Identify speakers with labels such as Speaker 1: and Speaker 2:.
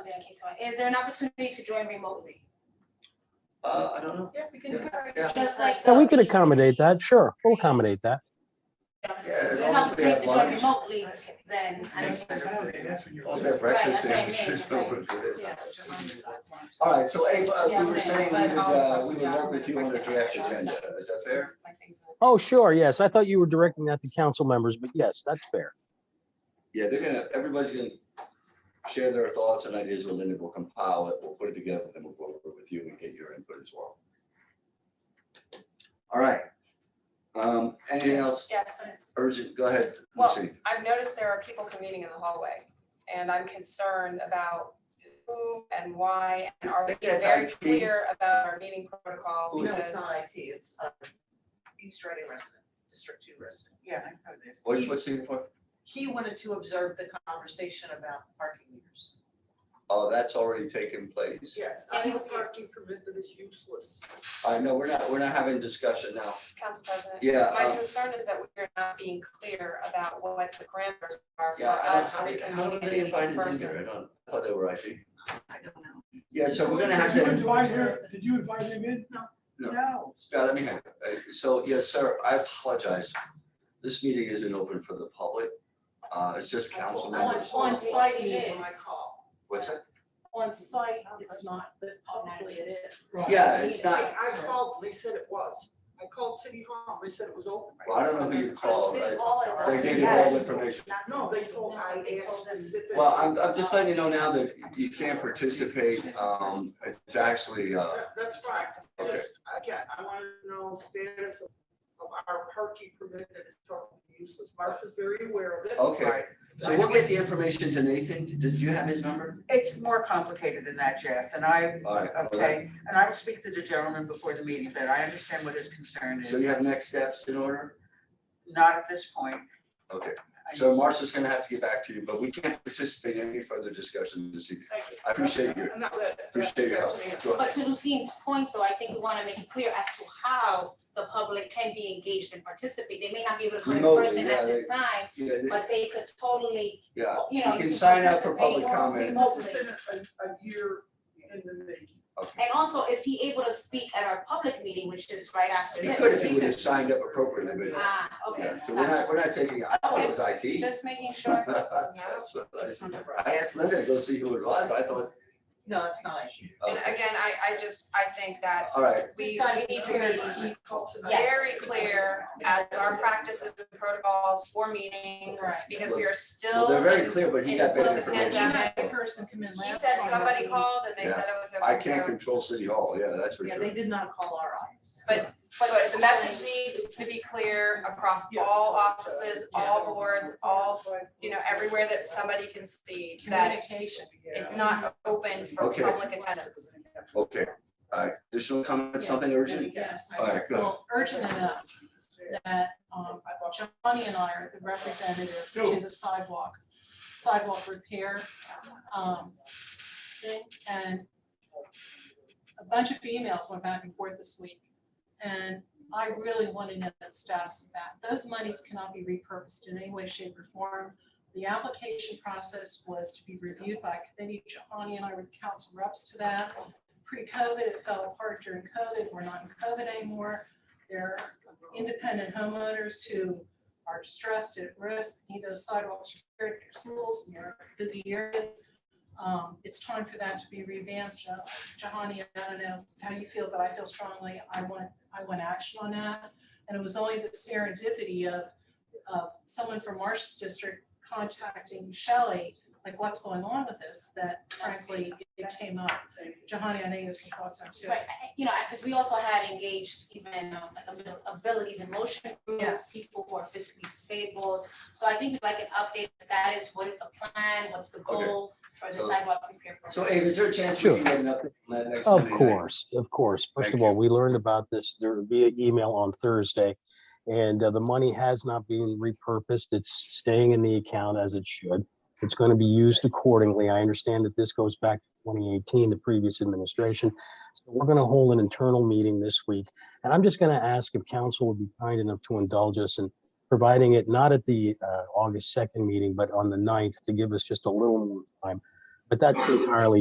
Speaker 1: Okay, so is there an opportunity to join remotely?
Speaker 2: Uh, I don't know.
Speaker 3: Yeah, we can.
Speaker 2: Yeah,
Speaker 3: encourage
Speaker 2: yeah.
Speaker 3: that.
Speaker 1: Just like
Speaker 4: So Oh, we
Speaker 1: the-
Speaker 4: could accommodate that, sure, we'll accommodate that.
Speaker 1: If
Speaker 2: Yeah, as
Speaker 1: There's
Speaker 2: long
Speaker 1: an
Speaker 2: as we
Speaker 1: opportunity
Speaker 2: have
Speaker 1: to join
Speaker 2: lunch.
Speaker 1: remotely, then I don't.
Speaker 2: Also have breakfast
Speaker 1: Right, that's
Speaker 2: sandwiches,
Speaker 1: what I
Speaker 2: it's
Speaker 1: mean,
Speaker 2: open for this.
Speaker 1: Yeah.
Speaker 2: All right, so Abe, uh,
Speaker 1: Yeah,
Speaker 2: we were
Speaker 1: okay.
Speaker 2: saying we
Speaker 1: But
Speaker 2: would,
Speaker 5: I'll
Speaker 2: uh, we would work with you on the draft
Speaker 5: Yeah.
Speaker 2: agenda, is that fair?
Speaker 4: Oh, sure, yes, I thought you were directing that to council members, but yes, that's fair.
Speaker 2: Yeah, they're gonna, everybody's gonna share their thoughts and ideas with Linda, we'll compile it, we'll put it together, then we'll go over it with you and get your input as well. All right. Um, anything else
Speaker 1: Yeah, that's what it is.
Speaker 2: urgent, go ahead,
Speaker 5: Well,
Speaker 2: Lucy.
Speaker 5: I've noticed there are people commuting in the hallway, and I'm concerned about who and why, and are
Speaker 2: I
Speaker 5: we
Speaker 2: think that's
Speaker 5: very
Speaker 2: IT.
Speaker 5: clear about our meeting protocol?
Speaker 2: Who
Speaker 3: No,
Speaker 2: is
Speaker 3: it's
Speaker 5: Because
Speaker 3: not IT, it's
Speaker 2: um,
Speaker 3: uh, East Reading resident, District Two resident. Yeah, I've heard this.
Speaker 2: What's, what's it for?
Speaker 3: He wanted to observe the conversation about parking meters.
Speaker 2: Oh, that's already taken place.
Speaker 3: Yes,
Speaker 1: I think parking
Speaker 3: permit that is useless.
Speaker 2: I know, we're not, we're not having discussion now.
Speaker 5: Council President,
Speaker 2: Yeah,
Speaker 5: my
Speaker 2: uh,
Speaker 5: concern is that we're not being clear about what the parameters are for
Speaker 2: yeah, I don't-
Speaker 5: us
Speaker 2: how
Speaker 5: to
Speaker 2: did, how did they
Speaker 5: communicate in
Speaker 2: invite him here?
Speaker 5: person.
Speaker 2: I don't, I thought they were IP.
Speaker 3: I don't know.
Speaker 2: Yeah, so we're gonna have
Speaker 6: Did you invite
Speaker 2: to.
Speaker 6: her, did you invite him in?
Speaker 2: No.
Speaker 3: No.
Speaker 2: Scott, let me, have- uh, so, yes, sir, I apologize. This meeting isn't open for the public. Uh, it's just council
Speaker 3: On,
Speaker 2: members.
Speaker 3: on site,
Speaker 1: It
Speaker 3: you
Speaker 1: is.
Speaker 3: can call.
Speaker 2: What's that?
Speaker 3: On site, it's not, but publicly it is.
Speaker 6: Right.
Speaker 2: Yeah, it's not,
Speaker 7: I called, they said it was. I called City Hall, they said it was open.
Speaker 2: well, I don't know who you called.
Speaker 3: City
Speaker 2: I-
Speaker 3: Hall is.
Speaker 2: They
Speaker 3: us.
Speaker 2: gave you all the information.
Speaker 7: No, they told, I
Speaker 1: They
Speaker 7: asked
Speaker 1: told them.
Speaker 7: specifically.
Speaker 2: Well, I'm, I'm just letting you know now that you can't participate. Um, it's actually, uh,
Speaker 7: That- That's fine.
Speaker 2: Okay.
Speaker 7: Just, Again, I want to know status of of our parking permit that is totally useless. Martha's very aware of it.
Speaker 2: okay. So we'll get the information to Nathan. Did you have his number?
Speaker 8: It's more complicated than that, Jeff, and I,
Speaker 2: All right. well, that-
Speaker 8: okay, and I will speak to the gentleman before the meeting, but I understand what his concern
Speaker 2: So you
Speaker 8: is.
Speaker 2: have next steps in order?
Speaker 8: Not at this point.
Speaker 2: Okay.
Speaker 8: I-
Speaker 2: So Marcia's gonna have to get back to you, but we can't participate in any further discussion this evening.
Speaker 7: Thank you.
Speaker 2: I appreciate you.
Speaker 7: No, that- that-
Speaker 2: Appreciate your
Speaker 7: that's
Speaker 2: help.
Speaker 7: an answer.
Speaker 2: Go
Speaker 1: But
Speaker 2: ahead.
Speaker 1: to Lucine's point, though, I think we want to make it clear as to how the public can be engaged and participate. They may not be able to come in
Speaker 2: Remotely,
Speaker 1: person
Speaker 2: yeah,
Speaker 1: at this time,
Speaker 2: Yeah,
Speaker 1: but they could totally,
Speaker 2: yeah.
Speaker 1: you know.
Speaker 2: You can sign up for public
Speaker 1: participate
Speaker 2: comment.
Speaker 7: This has
Speaker 1: remotely.
Speaker 7: been a, a year in the making.
Speaker 1: And also, is he able to speak at our public meeting, which is right after
Speaker 2: He
Speaker 1: this?
Speaker 2: could if he would have signed up appropriately, but
Speaker 1: Ah, okay.
Speaker 2: yeah, so we're not, we're not taking, I thought it was IT.
Speaker 1: Just making sure.
Speaker 2: That's what I said. I asked Linda to go see who it was, but I thought,
Speaker 3: No, it's not.
Speaker 5: And
Speaker 2: okay,
Speaker 5: again, I, I just, I think that
Speaker 2: all right,
Speaker 5: we, we need to be very clear as our practices and protocols for meetings,
Speaker 3: Right.
Speaker 5: because we are
Speaker 2: well,
Speaker 5: still.
Speaker 2: they're very clear, but he got
Speaker 5: Well,
Speaker 2: bad
Speaker 5: the
Speaker 2: information.
Speaker 5: pandemic-
Speaker 3: person come in
Speaker 5: He said somebody called and they
Speaker 2: Yeah.
Speaker 5: said it was.
Speaker 2: I
Speaker 5: open,
Speaker 2: can't
Speaker 5: so-
Speaker 2: control City Hall, yeah, that's for
Speaker 3: Yeah,
Speaker 2: sure.
Speaker 3: they did not call our office.
Speaker 5: But the message needs to be clear across all offices, all boards, all, you know, everywhere that somebody can see that
Speaker 3: Communication.
Speaker 5: it's not open for
Speaker 2: Okay.
Speaker 5: public attendance.
Speaker 2: Okay, all right, additional comments, something urgent?
Speaker 3: Yes.
Speaker 2: All right, go.
Speaker 3: Well, urgent enough that um, Johnny and I are the representatives to the sidewalk, sidewalk repair. um, thing. And a bunch of emails went back and forth this week. And I really want to know the status of that. Those monies cannot be repurposed in any way, shape, or form. The application process was to be reviewed by a committee. Johnny and I were council reps to that. Pre-COVID, it fell apart during COVID. We're not in COVID anymore. There are independent homeowners who are distressed at risk, need those sidewalks repaired, their schools, near busy areas. Um, it's time for that to be revamped. Jo- Jahani, I don't know how you feel, but I feel strongly, I want, I want action on that. And it was only the serendipity of, of someone from Marsh's district contacting Shelley, like, what's going on with this, that frankly, it came up. Jahani, I know you have some thoughts on it too.
Speaker 1: Right, I- you know, because we also had engaged even um, like abil- abilities and motion groups, people who are physically disabled. So I think like an update status, what is the plan, what's the
Speaker 2: Okay.
Speaker 1: goal for the
Speaker 2: So-
Speaker 1: sidewalk repair program?
Speaker 2: So Abe, is there a chance we
Speaker 4: Sure.
Speaker 2: can get an update on that next
Speaker 4: Of
Speaker 2: Monday night?
Speaker 4: course, of course. First
Speaker 2: Thank
Speaker 4: of all, we learned about this there via email on Thursday. And uh, the money has not been repurposed. It's staying in the account as it should. It's going to be used accordingly. I understand that this goes back to 2018, the previous administration. So We're going to hold an internal meeting this week. And I'm just going to ask if council would be kind enough to indulge us in providing it not at the uh, August 2nd meeting, but on the 9th to give us just a little more time But that's entirely